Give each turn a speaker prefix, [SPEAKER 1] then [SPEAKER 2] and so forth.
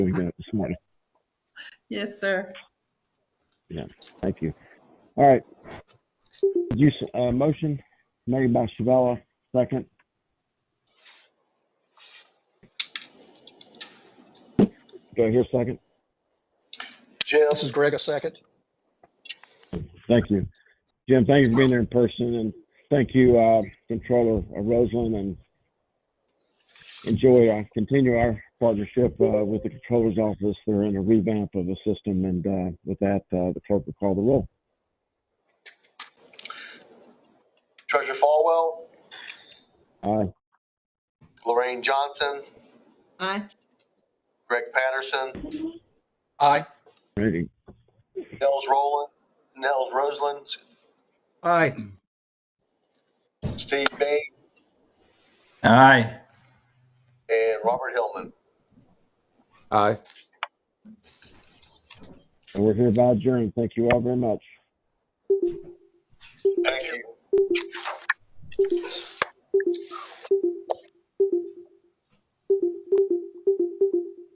[SPEAKER 1] we got this morning.
[SPEAKER 2] Yes, sir.
[SPEAKER 1] Thank you. All right. You, s- uh, motion made by Shavella, second. Do I hear second?
[SPEAKER 3] Jim, this is Greg, a second.
[SPEAKER 1] Thank you. Jim, thank you for being there in person and thank you, uh, Controller Roseland and enjoy, uh, continue our partnership, uh, with the Controller's Office. They're in a revamp of the system and, uh, with that, uh, the clerk will call the roll.
[SPEAKER 4] Treasurer Falwell,
[SPEAKER 1] Aye.
[SPEAKER 4] Lorraine Johnson,
[SPEAKER 2] Aye.
[SPEAKER 4] Greg Patterson,
[SPEAKER 3] Aye.
[SPEAKER 1] Ready.
[SPEAKER 4] Nels Roland, Nels Roseland,
[SPEAKER 3] Aye.
[SPEAKER 4] Steve Bain,
[SPEAKER 5] Aye.
[SPEAKER 4] and Robert Hillman.
[SPEAKER 6] Aye.
[SPEAKER 1] And we're hereby adjourned. Thank you all very much.
[SPEAKER 4] Thank you.